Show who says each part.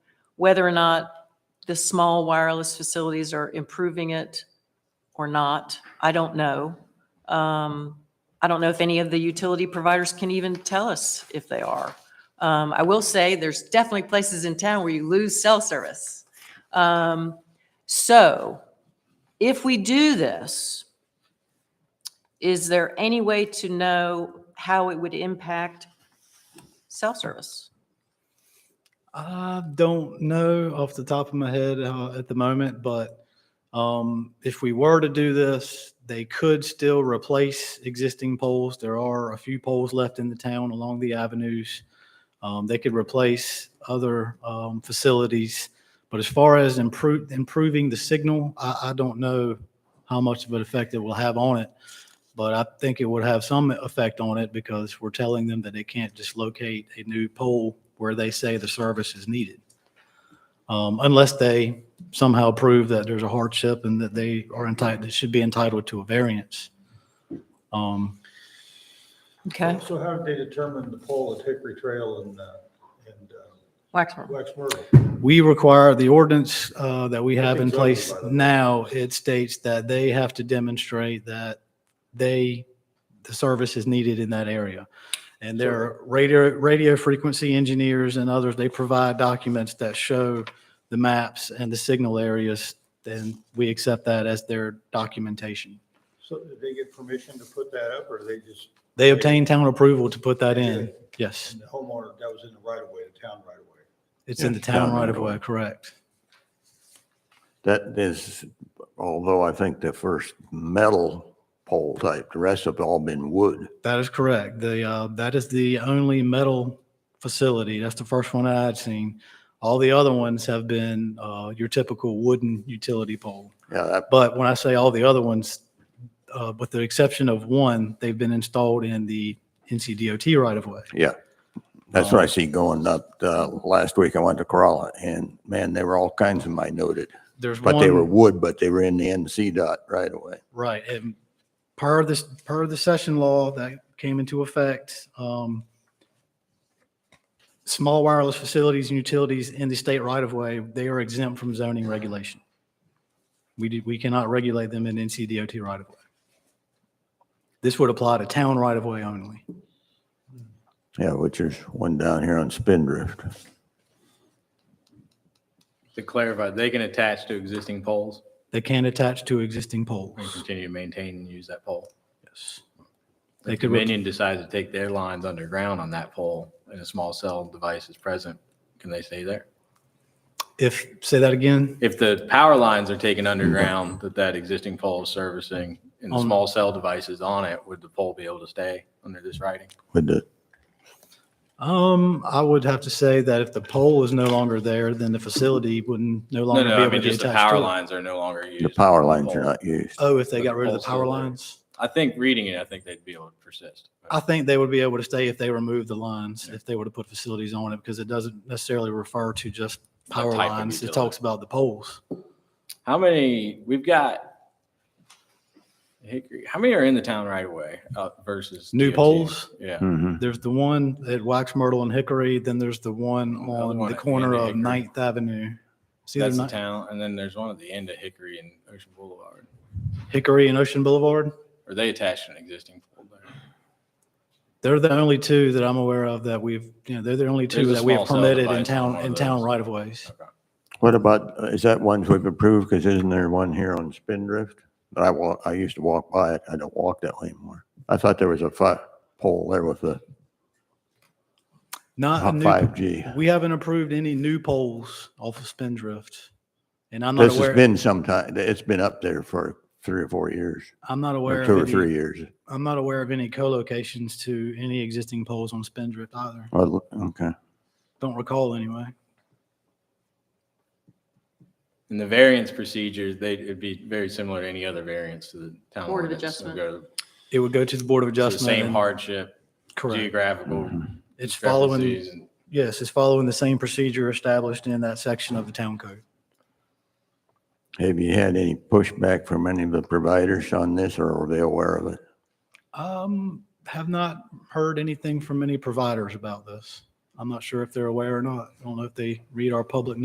Speaker 1: whether or not the small wireless facilities are improving it or not, I don't know. Um, I don't know if any of the utility providers can even tell us if they are. Um, I will say, there's definitely places in town where you lose cell service. Um, So if we do this, is there any way to know how it would impact cell service?
Speaker 2: I don't know off the top of my head uh, at the moment, but um, if we were to do this, they could still replace existing poles. There are a few poles left in the town along the avenues. Um, they could replace other um, facilities, but as far as improve, improving the signal, I, I don't know how much of an effect it will have on it. But I think it would have some effect on it because we're telling them that they can't just locate a new pole where they say the service is needed. Um, Unless they somehow prove that there's a hardship and that they are entitled, that should be entitled to a variance. Um,
Speaker 1: Okay,
Speaker 3: So how did they determine the pole at Hickory Trail and, uh, and uh,
Speaker 1: Waxman.
Speaker 3: Waxmoor?
Speaker 2: We require the ordinance uh, that we have in
Speaker 3: Nothing's
Speaker 2: place
Speaker 3: over by the way.
Speaker 2: now, it states that they have to demonstrate that they, the service is needed in that area. And there are radio, radio frequency engineers and others, they provide documents that show the maps and the signal areas, and we accept that as their documentation.
Speaker 3: So did they get permission to put that up, or they just,
Speaker 2: They obtain town approval to put that in. Yes,
Speaker 3: and the homeowner, that was in the right of way, the town right of way?
Speaker 2: it's in the town right of way, correct.
Speaker 4: That is, although I think the first metal pole type, the rest have all been wood.
Speaker 2: That is correct. The, uh, that is the only metal facility. That's the first one I had seen. All the other ones have been, uh, your typical wooden utility pole.
Speaker 4: Yeah, that,
Speaker 2: But when I say all the other ones, uh, with the exception of one, they've been installed in the NCDOT right of way.
Speaker 4: yeah. That's what I see going up. Uh, last week I went to Corolla and man, there were all kinds of them I noted.
Speaker 2: There's
Speaker 4: But they were
Speaker 2: one,
Speaker 4: wood, but they were in the NC dot right away.
Speaker 2: right, and per this, per the session law that came into effect, um, small wireless facilities and utilities in the state right of way, they are exempt from zoning regulation. We do, we cannot regulate them in NCDOT right of way. This would apply to town right of way only.
Speaker 4: Yeah, which is one down here on Spindrift.
Speaker 5: To clarify, they can attach to existing poles
Speaker 2: They can attach to existing
Speaker 5: and
Speaker 2: poles.
Speaker 5: continue to maintain and use that pole.
Speaker 2: Yes. They
Speaker 5: If
Speaker 2: could, re-
Speaker 5: Dominion decides to take their lines underground on that pole and a small cell device is present, can they stay there?
Speaker 2: if, say that again,
Speaker 5: If the power lines are taken underground, that that existing pole is servicing and the
Speaker 2: On-
Speaker 5: small cell device is on it, would the pole be able to stay under this writing?
Speaker 4: With the,
Speaker 2: Um, I would have to say that if the pole is no longer there, then the facility wouldn't no
Speaker 5: No,
Speaker 2: longer
Speaker 5: no,
Speaker 2: be
Speaker 5: I
Speaker 2: able
Speaker 5: mean,
Speaker 2: to
Speaker 5: just the
Speaker 2: attach to
Speaker 5: power
Speaker 2: it.
Speaker 5: lines are no longer used.
Speaker 4: the power
Speaker 5: for Uh,
Speaker 4: lines are
Speaker 5: pole.
Speaker 4: not used.
Speaker 2: Oh, if they
Speaker 5: But
Speaker 2: got
Speaker 5: the
Speaker 2: rid of the
Speaker 5: pole's
Speaker 2: power
Speaker 5: still there.
Speaker 2: lines?
Speaker 5: I think reading it, I think they'd be able to persist.
Speaker 2: I think they would be able to stay if they removed the lines, if they were to put facilities on it, because it doesn't necessarily refer to just power
Speaker 5: type of
Speaker 2: lines. It
Speaker 5: utility.
Speaker 2: talks about the poles.
Speaker 5: How many, we've got Hickory, how many are in the town right away uh, versus?
Speaker 2: New
Speaker 5: DOT?
Speaker 2: poles? Hmm.
Speaker 5: Yeah.
Speaker 4: Mhm.
Speaker 2: There's the one at Wax Myrtle and Hickory, then there's the one
Speaker 5: Another
Speaker 2: on
Speaker 5: Oh, one
Speaker 2: the
Speaker 5: at
Speaker 2: corner
Speaker 5: Andy
Speaker 2: of
Speaker 5: Hickory.
Speaker 2: Ninth Avenue. See
Speaker 5: That's the
Speaker 2: the
Speaker 5: town. And then there's one at the end of Hickory and Ocean Boulevard.
Speaker 2: Hickory and Ocean Boulevard?
Speaker 5: Are they attached to an existing pole there?
Speaker 2: They're the only two that I'm aware of that we've, you know, they're the only two
Speaker 5: There's a
Speaker 2: that we have
Speaker 5: small cell
Speaker 2: permitted in
Speaker 5: device on
Speaker 2: town,
Speaker 5: one of
Speaker 2: in town
Speaker 5: those.
Speaker 2: right of ways.
Speaker 5: Okay.
Speaker 4: What about, uh, is that ones we've approved? Because isn't there one here on Spindrift? But I walk, I used to walk by it. I don't walk that way anymore. I thought there was a fi pole there with the
Speaker 2: Not a new,
Speaker 4: five G.
Speaker 2: we haven't approved any new poles off of Spindrift. And I'm not
Speaker 4: This has
Speaker 2: aware,
Speaker 4: been some time, it's been up there for three or four years,
Speaker 2: I'm not aware
Speaker 4: or two or
Speaker 2: of
Speaker 4: three
Speaker 2: any,
Speaker 4: years.
Speaker 2: I'm not aware of any co-locations to any existing poles on Spindrift either.
Speaker 4: Well, Okay.
Speaker 2: Don't recall anyway.
Speaker 5: In the variance procedure, they, it'd be very similar to any other variance to the town.
Speaker 1: Board of
Speaker 5: ordinance.
Speaker 1: Adjustment.
Speaker 5: It'd go to
Speaker 2: It would go to the Board of
Speaker 5: the
Speaker 2: Adjustment.
Speaker 5: Same
Speaker 2: and-
Speaker 5: hardship,
Speaker 2: Correct. Hmm.
Speaker 5: geographical.
Speaker 2: It's following,
Speaker 5: discrepancies and-
Speaker 2: yes, it's following the same procedure established in that section of the town code.
Speaker 4: Have you had any pushback from any of the providers on this, or are they aware of it?
Speaker 2: Um, have not heard anything from any providers about this. I'm not sure if they're aware or not. I don't know if they read our public